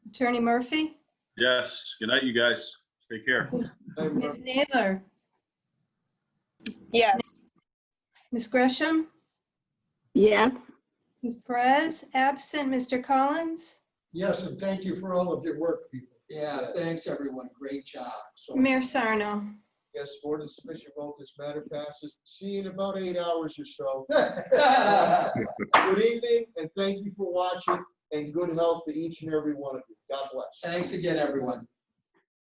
Attorney Murphy? Yes, good night, you guys. Take care. Ms. Naylor? Yes. Ms. Gresham? Yes, Ms. Perez? Absent. Mr. Collins? Yes, and thank you for all of your work, people. Yeah, thanks, everyone. Great job. So, Mayor Sarno? Yes, board of submission vote, this matter passes. See you in about eight hours or so. Good evening, and thank you for watching, and good health to each and every one of you. God bless. Thanks again, everyone.